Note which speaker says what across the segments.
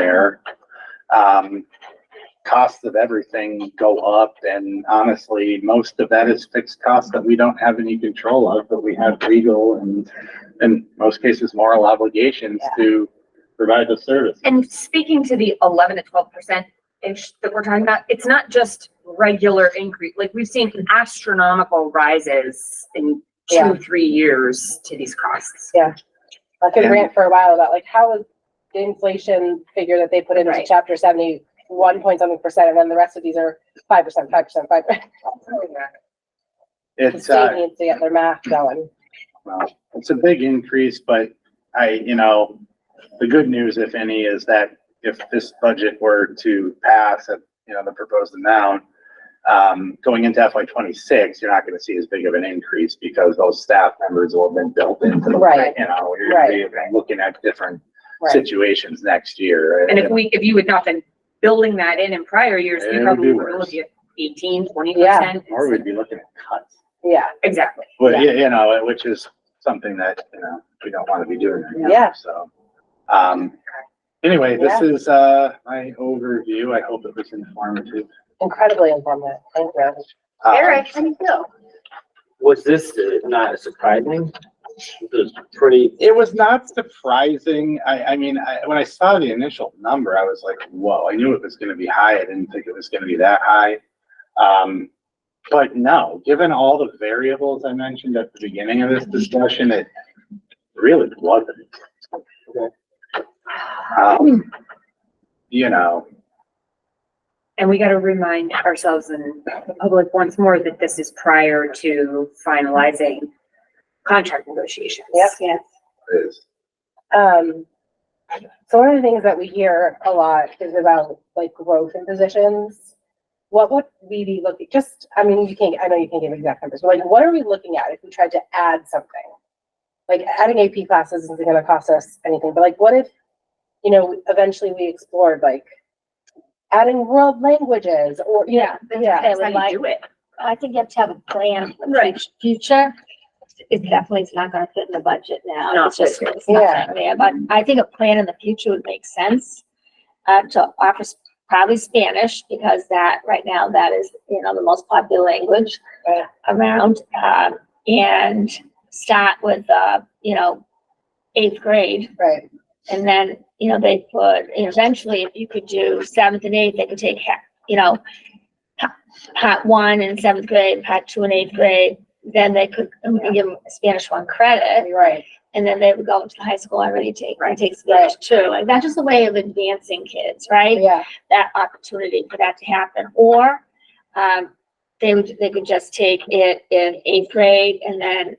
Speaker 1: there. Um, costs of everything go up and honestly, most of that is fixed costs that we don't have any control of, but we have legal and in most cases moral obligations to provide the service.
Speaker 2: And speaking to the eleven to twelve percent ish that we're talking about, it's not just regular increase, like we've seen astronomical rises in
Speaker 3: Yeah.
Speaker 2: two, three years to these costs.
Speaker 3: I could
Speaker 1: And-
Speaker 3: rant for a while about like how is the inflation figure that they put into
Speaker 2: Right.
Speaker 3: chapter seventy one point something percent, and then the rest of these are five percent, five percent, five. percent. The
Speaker 1: It's, uh,
Speaker 3: state needs to get their math going.
Speaker 1: Well, it's a big increase, but I, you know, the good news, if any, is that if this budget were to pass at, you know, the proposed amount, um, going into FY twenty-six, you're not gonna see as big of an increase because those staff members will have been built into the,
Speaker 3: Right.
Speaker 1: you know, you're gonna be looking at different
Speaker 3: Right.
Speaker 1: situations next year.
Speaker 2: And if we, if you had not been building that in in prior years,
Speaker 1: It
Speaker 2: we
Speaker 1: would
Speaker 2: probably
Speaker 1: be
Speaker 2: were
Speaker 1: worse.
Speaker 2: looking at eighteen, twenty percent.
Speaker 1: Or we'd be looking at cuts,
Speaker 3: Yeah,
Speaker 2: Exactly.
Speaker 1: but, you, you know, which is something that, you know, we don't wanna be doing. right now,
Speaker 3: Yeah.
Speaker 1: So, um, Anyway, this is, uh, my overview. I hope it was informative.
Speaker 3: incredibly informative. Thank you.
Speaker 1: Um,
Speaker 2: how do you feel?
Speaker 4: Was this uh, not surprising? It was pretty,
Speaker 1: It was not surprising. I, I mean, I, when I saw the initial number, I was like, whoa, I knew it was gonna be high. I didn't think it was gonna be that high. Um, but no, given all the variables I mentioned at the beginning of this discussion, it really wasn't. Um, you know,
Speaker 2: And we gotta remind ourselves and the public once more that this is prior to finalizing contract negotiations.
Speaker 3: Yes, yes.
Speaker 1: it's
Speaker 3: Um, so one of the things that we hear a lot is about like growth in positions. What would we be looking, just, I mean, you can't, I know you can't give exact numbers, but like, what are we looking at if we tried to add something? Like adding AP classes isn't gonna cost us anything, but like, what if, you know, eventually we explored like adding world languages or, yeah, yeah.
Speaker 5: I would
Speaker 2: That's how you
Speaker 5: like,
Speaker 2: do it.
Speaker 5: I think you have to have a plan for
Speaker 2: Right.
Speaker 5: the future. It definitely is not gonna fit in the budget now.
Speaker 2: No,
Speaker 5: It's just,
Speaker 2: it's-
Speaker 5: it's not
Speaker 3: yeah.
Speaker 5: gonna be there, but I think a plan in the future would make sense. Uh, to offer s- probably Spanish, because that, right now, that is, you know, the most popular language
Speaker 3: Right.
Speaker 5: around. Um and start with, uh, you know, eighth grade.
Speaker 3: Right,
Speaker 5: And then, you know, they put, eventually, if you could do seventh and eighth, they could take, ha- you know, pa- part one in seventh grade, part two in eighth grade, then they could um, give them Spanish one credit.
Speaker 3: you're right.
Speaker 5: And then they would go to the high school and already take, and take
Speaker 3: Right.
Speaker 5: Spanish two. Like, that's just a way of advancing kids, right?
Speaker 3: Yeah,
Speaker 5: That opportunity for that to happen. Or, um, they would, they could just take it in eighth grade and then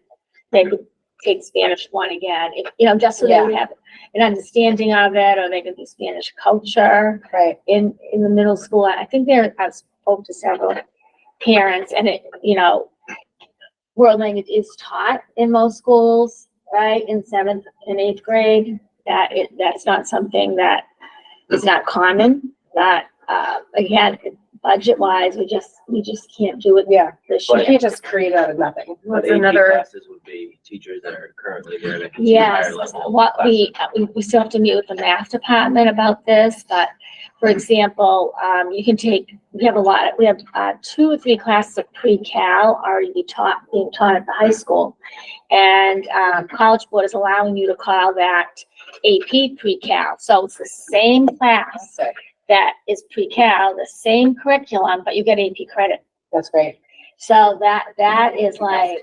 Speaker 5: they could take Spanish one again, if- you know, just so they would have an understanding of it, or they could do Spanish culture
Speaker 3: right.
Speaker 5: in, in the middle school. I think there, I spoke to several parents and it, you know, world language is taught in most schools, right, in seventh and eighth grade. That it, that's not something that is not common, that, uh, again, budget wise, we just, we just can't do it
Speaker 3: Yeah,
Speaker 5: this
Speaker 3: you
Speaker 4: But-
Speaker 5: year.
Speaker 3: can't just create out of nothing.
Speaker 2: What's
Speaker 4: but AP
Speaker 2: another,
Speaker 4: classes would be teachers that are currently there that can teach
Speaker 5: Yes,
Speaker 4: higher level.
Speaker 5: what
Speaker 4: classes.
Speaker 5: we, uh, we, we still have to meet with the math department about this, but for example, um, you can take, we have a lot, we have, uh, two or three classes of pre-cal already be taught, being taught at the high school. And, um, College Board is allowing you to call that AP pre-cal, so it's the same class
Speaker 3: Sick.
Speaker 5: that is pre-cal, the same curriculum, but you get AP credit.
Speaker 3: That's great.
Speaker 5: So that, that is like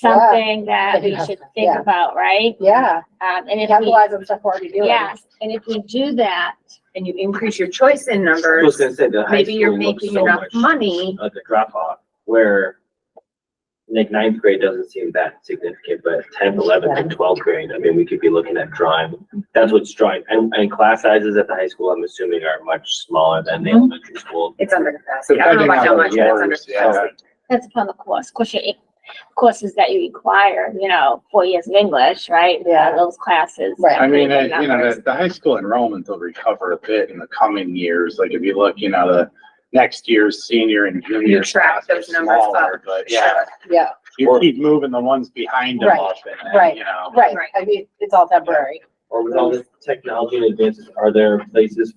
Speaker 5: something that we should think
Speaker 3: Yeah.
Speaker 5: about, right?
Speaker 3: Yeah,
Speaker 5: Um, and if we,
Speaker 3: capitalize on stuff we're already doing.
Speaker 5: yes, and if we do that,
Speaker 2: and you increase your choice in
Speaker 4: I was
Speaker 2: numbers,
Speaker 4: gonna say the high
Speaker 2: maybe you're
Speaker 4: school looks
Speaker 2: making
Speaker 4: so
Speaker 2: enough
Speaker 4: much
Speaker 2: money.
Speaker 4: like a drop off where like ninth grade doesn't seem that significant, but tenth, eleventh and twelfth grade, I mean, we could be looking at drawing. That's what's drawing. And, and class sizes at the high school, I'm assuming are much smaller than
Speaker 2: Mm-hmm.
Speaker 4: the elementary school.
Speaker 2: It's under capacity. I don't know about how much,
Speaker 1: Depending
Speaker 2: but
Speaker 1: on
Speaker 2: it's
Speaker 1: the
Speaker 2: under
Speaker 1: course, yeah.
Speaker 2: capacity.
Speaker 5: that's upon the course, course you, courses that you require, you know, four years of English, right?
Speaker 3: Yeah.
Speaker 5: Uh, Those classes.
Speaker 3: Right.
Speaker 1: I mean,
Speaker 5: Everything
Speaker 1: uh, you know,
Speaker 5: numbers.
Speaker 1: the, the high school enrollment will recover a bit in the coming years. Like if you look, you know, the next year's senior and junior
Speaker 2: You track
Speaker 1: class are
Speaker 2: those numbers up.
Speaker 1: smaller, But yeah,
Speaker 3: Yeah,
Speaker 1: you keep moving the ones behind them
Speaker 3: Right,
Speaker 1: up and,
Speaker 3: right,
Speaker 1: then, you know.
Speaker 3: right.
Speaker 2: Right.
Speaker 3: I mean, it's all temporary.
Speaker 4: Or with all this technology and advances, are there places